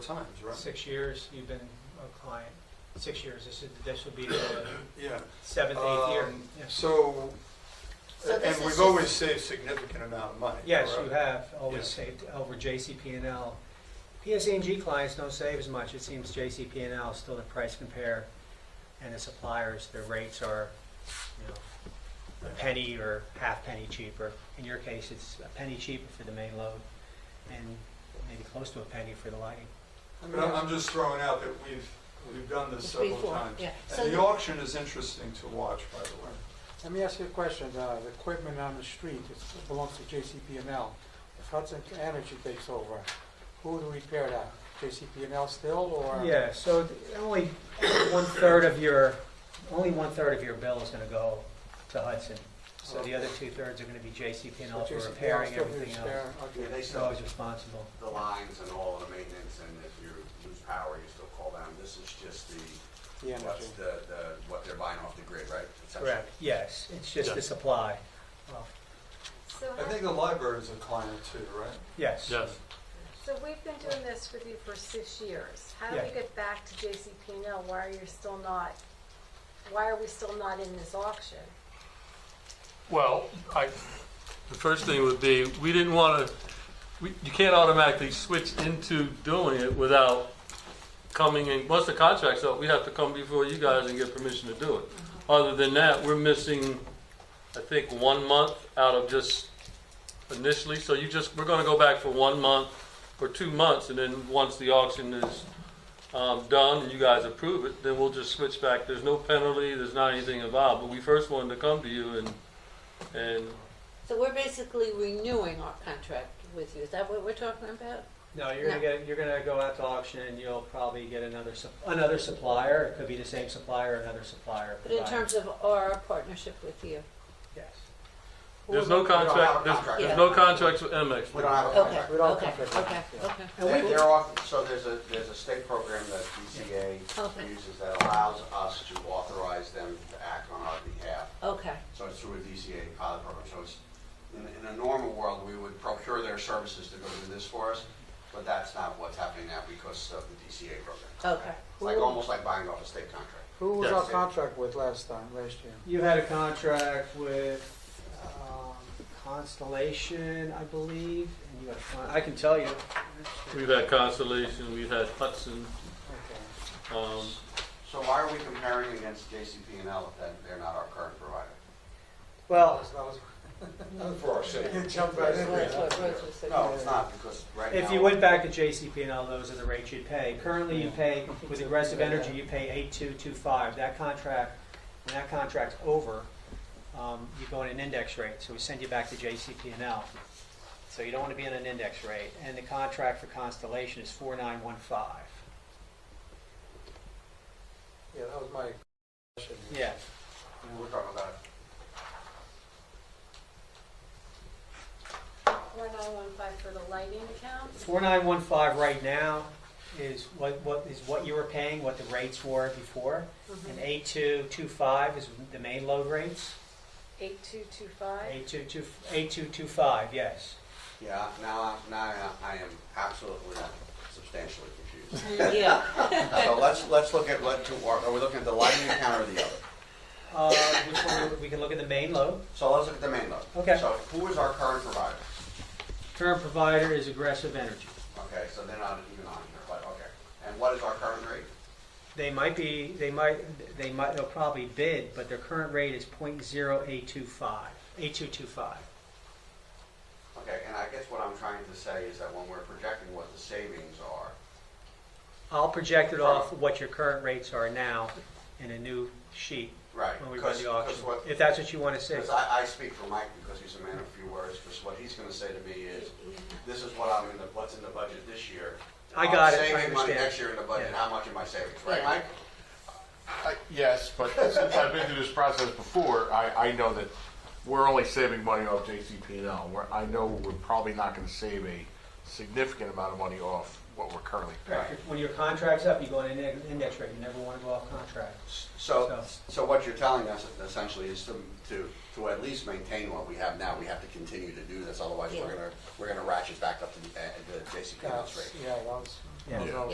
times, right? Six years you've been a client, six years, this is, this would be the Yeah. seventh, eighth year. Um, Yes. So, So this and is we've just- always saved significant amount of money. Yes, correct? you have always Yeah. saved over JCP&L. P.S.E.G. clients don't save as much, it seems JCP&L is still the price compare, and the suppliers, their rates are, you know, a penny or half penny cheaper. In your case, it's a penny cheaper for the main load, and maybe close to a penny for the lighting. But I'm, I'm just throwing out that we've, we've done this several Before, times. yeah. So Uh-huh. And the the- auction is interesting to watch, by the way. Let me ask you a question. Uh, The equipment on the street it's- it belongs to JCP&L. If Hudson Energy takes over, who would repair that? JCP&L still, or? Yeah, so th- only one-third of your, only one-third of your bill is gonna go to Hudson. So the other two-thirds are gonna be So JCP&L for JCP&L repairing still everything else. repair- Yeah, okay. they It's still, always responsible. the lines and all of the maintenance, and if you lose power, you still call down. This is just the, The energy. what's the, the, what they're buying off the grid, right? Essentially. Correct, yes, it's just the Yeah. supply. Well, So, I think the library is a client too, right? Yes. Yes, so we've been doing this with you for six years. How do we Yeah. get back to J C P now? Why are you still not, why are we still not in this auction? well, I, the first thing would be, we didn't want to, we, you can't automatically switch into doing it without coming in, once the contract's up, we have to come before you guys and get permission to do it. Other than that, we're missing, I think, one month out of just initially, so you just, we're gonna go back for one month or two months, and then once the auction is, um, done and you guys approve it, then we'll just switch back. There's no penalty, there's not anything involved, but we first wanted to come to you and, and So we're basically renewing our contract with you, is that what we're talking about? No, you're gonna get, you're gonna go out to auction and you'll probably get another, sup- another supplier. It could be the same supplier, another supplier. But in provider. terms of our partnership with you, Yes. Who there's would- no contract, there's, contract. there's no contracts with MX. We don't have a okay, contract. We don't okay, conflict. okay, okay. They- They're off, so there's a, there's a state program that Okay. DCA uses that allows us to authorize them to act on our behalf. Okay, So it's through a DCA pilot program. So it's, in, in a normal world, we would procure their services to go do this for us, but that's not what's happening now because of the DCA program. okay. It's like, almost like buying off a state contract. Who was Yes. our contract with last time, last year? You had a contract with um, Constellation, I believe, and you had a con- I can tell you. We've had Constellation, we've had Hudson, Okay. um, So why are we comparing against JCP&L if that- they're not our current provider? Well, That was- Uh, For our city. You jumped right in That's there. what Rose was saying. No, it's not, because right now. if you went back to JCP&L, those are the rates you'd pay. Currently, you pay, with Aggressive Energy, you pay 8225. That contract, when that contract's over, um, you go on an index rate, so we send you back to JCP&L. So you don't want to be on an index rate, and the contract for Constellation is 4915. Yeah, that was my question. Yeah. We're talking about Four nine one five for the lighting account? 4915 right now is what, what, is what you were paying, what the rates were before. And 8225 is the main load rates. Eight two two five? 8225, 8225, yes. Yeah, now, I- now I- I am absolutely substantially confused. Yeah, So let's, let's look at what, to- are we looking at the lighting account or the other? Uh, which one, we can look at the main load. So let's look at the main load. Okay. So who is our current provider? Current provider is Aggressive Energy. Okay, so they're not even on here, but, okay. And what is our current rate? They might be, they might, they might, they'll probably bid, but their current rate is .0825, 8225. Okay, and I guess what I'm trying to say is that when we're projecting what the savings are, I'll project it off what your current rates are now in a new sheet right? when we run the auction, Because what, if that's what you want to say. Because I, I speak for Mike because he's a man of few words, because what he's gonna say to me is, this is what I'm in the, what's in the budget this year. I got it, I Saving money understand. next year in the budget, Yeah. how much am I saving, right, Yeah. Mike? I- Yes, but since I've been through this process before, I, I know that we're only saving money off JCP&L. We're, I know we're probably not going to save a significant amount of money off what we're currently paying. Correct. When your contract's up, you go on an index- index rate, you never want to go off contract. So, so what you're telling us essentially is to, to, to at least maintain what we have now, we have to continue to do this, otherwise we're Yeah. gonna, we're gonna ratchet back up to the, uh, the JCPenney's rate. Yeah, that was. Yeah. Yeah.